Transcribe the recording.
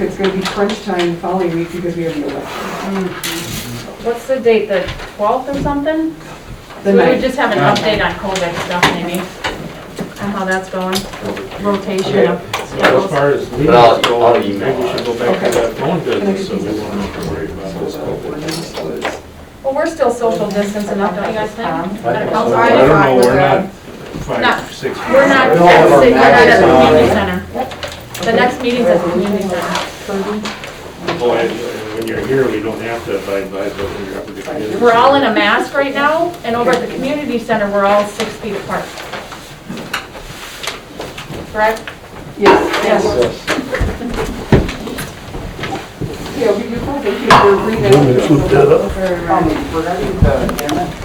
It's gonna be crunch time the following week because we have the election. What's the date, the 12th or something? The So we would night, just have an update on COVID stuff maybe, and how that's going, rotation of As schedules. far as meetings But I'll- go, I'll maybe we email should go back to that phone business, so we won't have to worry about this. COVID. Well, we're still social distance enough, don't you guys think? At a council I meeting? don't know, we're that. not No, five, six. We're not, feet. we're not at the community center. The next meeting's at the community center. Boy, and when you're here, we don't have to abide by, but when you're up at the community. We're all in a mask right now, and over at the community center, we're all six feet apart. Correct? yes. Yes. Yeah, we, you probably, you're bringing. uh, Woman, shoot that up. Very right.